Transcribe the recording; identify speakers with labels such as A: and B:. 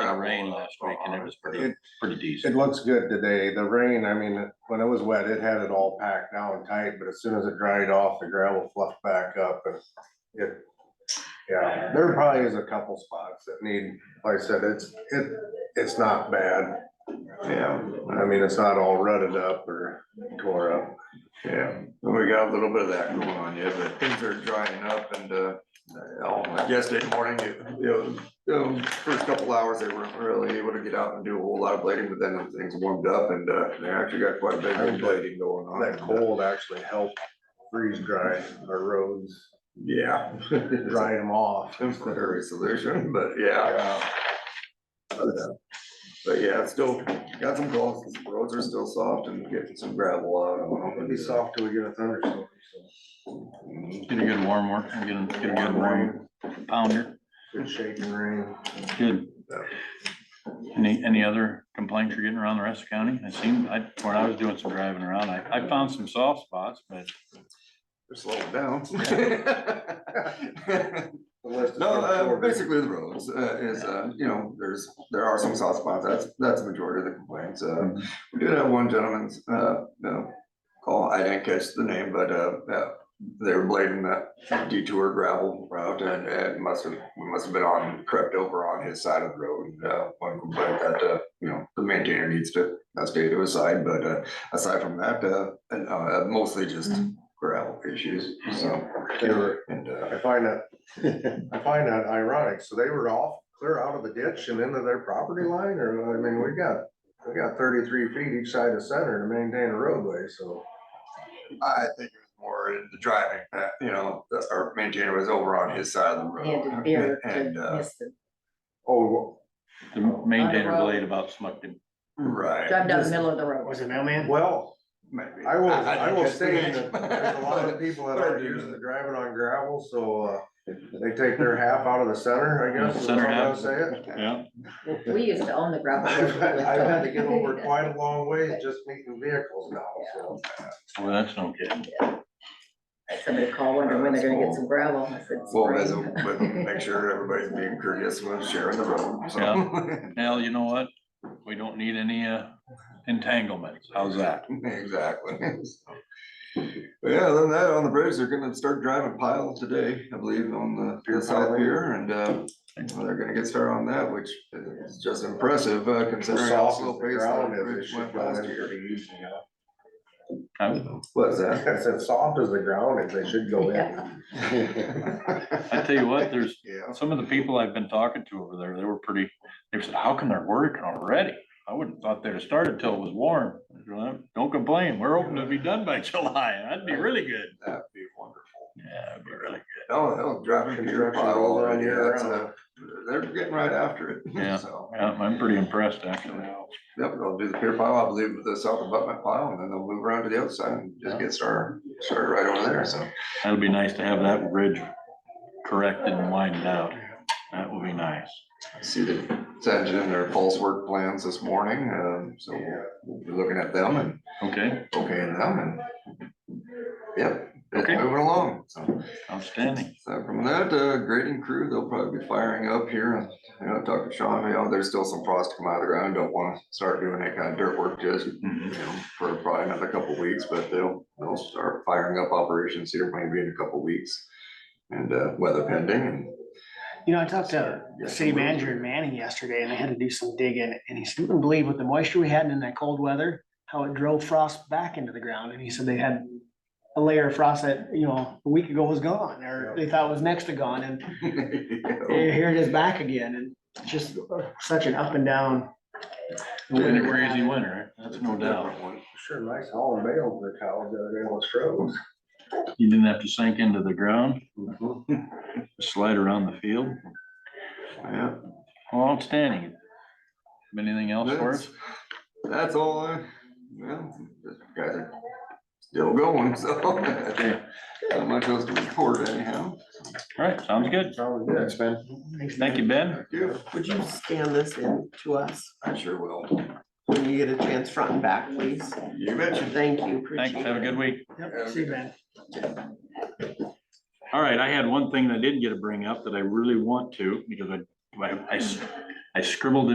A: rain last week and it was pretty,
B: It-
A: pretty decent.
B: It looks good today. The rain, I mean, when it was wet, it had it all packed down tight, but as soon as it dried off, the gravel fluffed back up and it. Yeah, there probably is a couple spots that need, like I said, it's, it, it's not bad.
C: Yeah,
B: I mean, it's not all rutted up or tore up.
C: yeah, we got a little bit of that going on yet, but things are drying up and, uh, oh, yesterday morning, it- you know, um, first couple hours, they weren't really able to get out and do a whole lot of blading, but then things warmed up and, uh, they actually got quite a bit of blading going on.
B: That cold actually helped freeze dry our roads,
C: Yeah.
B: dry them off.
C: Temporary solution, but yeah. But yeah, it's still, got some calls, roads are still soft and getting some gravel out. I'm hoping
B: It'll be
C: to-
B: soft till we get a thunderstorm. so
A: Get a good warm work, get a, get a good warm pounder,
B: Good shaking rain.
A: good. Any, any other complaints you're getting around the rest of the county? I seen, I, when I was doing some driving around, I, I found some soft spots, but
C: They're slowing down.
B: The list is
C: No, uh,
B: short.
C: basically the roads, uh, is, uh, you know, there's, there are some soft spots, that's, that's the majority of the complaints, uh. We did have one gentleman's, uh, no, call, I didn't catch the name, but, uh, uh, they were blading that detour gravel route and, and must have, we must have been on, crept over on his side of the road. And, uh, one complaint that, uh, you know, the maintainer needs to, uh, stay to his side, but, uh, aside from that, uh, and, uh, mostly just gravel issues, so.
B: They were-
C: And, uh,
B: I find that, I find that ironic. So they were off, clear out of the ditch and into their property line, or, I mean, we got, we got thirty-three feet each side of center to maintain a roadway, so.
C: I think it was more in the driving, uh, you know, the- our maintainer was over on his side of the
D: He had to
C: road.
D: veer
C: Oh, And,
D: to
C: uh,
D: miss the,
B: Oh,
A: the maintainer blade about smucked him.
B: Hmm.
C: right.
D: drive down the
C: just
D: middle of the road.
E: Was it mailman?
B: well,
C: maybe.
B: I will,
C: didn't
B: I will
C: catch the
B: say
C: name.
B: that there's a lot of people that
C: But I
B: are
C: do
B: used
C: know
B: to driving on gravel, so, uh, they take their half out of the center, I guess. is
A: Center
B: how I
A: half.
B: Say it.
A: Yeah.
D: We used to own the gravel.
B: I've
D: road
B: had-
D: with
B: I've had to
D: Doug.
B: get over quite a long ways just meeting vehicles now, so.
A: Well, that's no kidding.
D: Somebody called, wondering when they're gonna get some gravel. I said,
C: Well,
D: spring.
C: as a- but make sure everybody's being courteous when sharing the road, so.
A: Now, you know what? We don't need any, uh, entanglements. How's that?
C: Exactly. So, but Yeah, other than that, on the bridge, they're gonna start driving pile today, I believe, on the- the south pier, and, uh, well, they're gonna get started on that, which is just impressive, uh, considering how
B: Soft as
C: slow
B: the
C: paced
B: ground
C: that
B: is, it
C: bridge
B: should
C: went
B: go
C: last
B: in
C: year.
B: pretty easy, yeah.
A: I,
C: What's that?
B: It's as soft as the ground is, they should go in.
A: I tell you what, there's,
C: Yeah.
A: Some of the people I've been talking to over there, they were pretty, they said, how can they're working already? I wouldn't thought they'd have started till it was warm. I said, "Well, Don't complain, we're hoping to be done by July, that'd be really good.
C: That'd be wonderful.
A: Yeah, that'd be really
C: Oh, hell, driving pier
B: Construction
C: pile
B: all around
C: already,
B: year
C: that's,
B: round.
C: uh, they're getting right after it.
A: Yeah.
C: So.
A: good. Yeah, I'm pretty impressed, actually.
C: Yep, they'll do the pier pile, I believe, with the south abutment pile, and then they'll move around to the other side and just get started, started right over there, so.
A: That'd be nice to have that ridge corrected and widened out. That would be nice.
C: I See the, sent in their false work plans this morning, um, so we'll be looking at them and
A: Okay,
C: okaying them and. Yep, it's
A: Okay.
C: moving along, so.
A: outstanding.
C: So from that, uh, grading crew, they'll probably be firing up here, you know, talk to Sean, you know, there's still some frost coming out of the ground, don't wanna start doing that kind of dirt work just, you
A: Mm-hmm.
C: know, for probably another couple weeks, but they'll, they'll start firing up operations here maybe in a couple weeks. And, uh, weather pending, and
E: You know, I talked to the city manager in Manning yesterday and I had to do some digging and he said, "Wouldn't believe with the moisture we had and in that cold weather, how it drove frost back into the ground. And he said they had a layer of frost that, you know, a week ago was gone or they thought was next to gone and
C: you
E: here it is back again. And it's just such an up and down.
A: Been a crazy winter, that's no doubt.
C: know.
B: Sure, nice hauling bales their cows the other day on Stroh's.
A: You didn't have to sink into the ground, slide around the field.
C: Yeah.
A: Well, outstanding. Anything else for us?
C: That's- That's all, I- well, these guys are still going, so.
A: Okay,
C: Not much else to report anyhow.
A: all right, sounds good.
B: Thanks, man.
A: Thank you, Ben.
C: Thank you.
F: Would you scan this in to us
C: I sure will.
F: when you get a chance front and back, please?
C: You mentioned.
F: Thank you,
A: Thanks,
F: appreciate
A: have a
F: it.
A: good week.
E: Yep, see you, man.
A: All right, I had one thing that I didn't get to bring up that I really want to, because I, I- I s- I scribbled it